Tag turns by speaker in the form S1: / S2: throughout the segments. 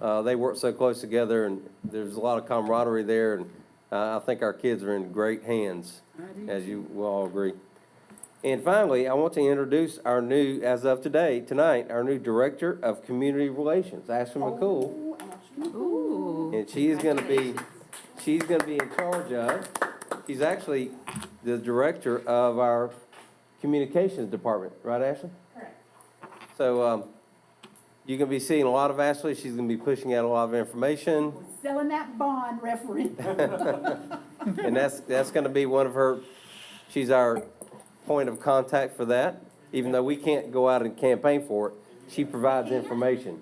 S1: uh, they work so close together, and there's a lot of camaraderie there, and uh, I think our kids are in great hands, as you will all agree. And finally, I want to introduce our new, as of today, tonight, our new Director of Community Relations, Ashley McCool.
S2: Ooh.
S1: And she is gonna be, she's gonna be in charge of, she's actually the director of our communications department, right, Ashley? Correct. So, um, you're gonna be seeing a lot of Ashley, she's gonna be pushing out a lot of information,
S2: Selling that bond referendum.
S1: and that's, that's gonna be one of her, she's our point of contact for that, even though we can't go out and campaign for it, she provides information.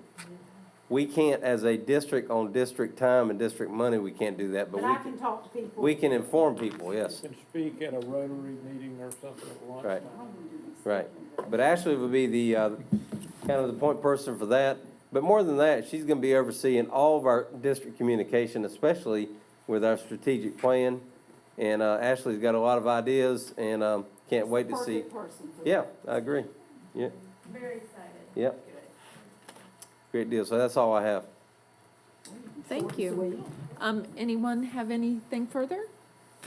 S1: We can't, as a district, on district time and district money, we can't do that, but
S2: But
S1: we
S2: I
S1: can-
S2: can talk to people.
S1: We can inform people, yes,
S3: Can speak at a Rotary meeting or something at lunch.
S1: Right. right. But Ashley would be the, uh, kind of the point person for that. But more than that, she's gonna be overseeing all of our district communication, especially with our strategic plan. And, uh, Ashley's got a lot of ideas and, um, can't wait to see.
S2: Perfect person for
S1: Yeah, I agree. Yeah,
S4: Very excited.
S1: Yep. great deal. So that's all I have.
S5: Thank you. Um, anyone have anything further?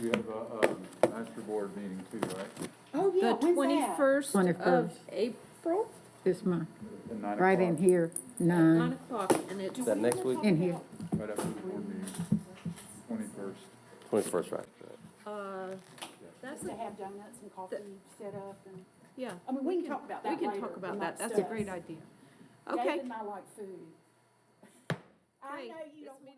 S6: You have a, um, master board meeting too, right?
S2: Oh, yeah,
S5: The
S2: when's
S5: twenty-first of
S7: 21st.
S5: April,
S7: This month,
S6: At nine
S7: right in
S6: o'clock,
S7: here,
S5: nine
S7: nine,
S5: o'clock, and it's
S1: Is that next week?
S7: in here.
S6: Right after the board meeting, twenty-first.
S1: Twenty-first, right.
S5: uh, that's,
S2: that? To
S5: a-
S2: have donuts and coffee set up and,
S5: yeah.
S2: I mean, we can talk about that
S5: We can
S2: later
S5: talk about
S2: amongst
S5: that, that's a
S2: us.
S5: great idea.
S2: Dave
S5: Okay.
S2: and I like food. I
S5: Great.
S2: know you don't want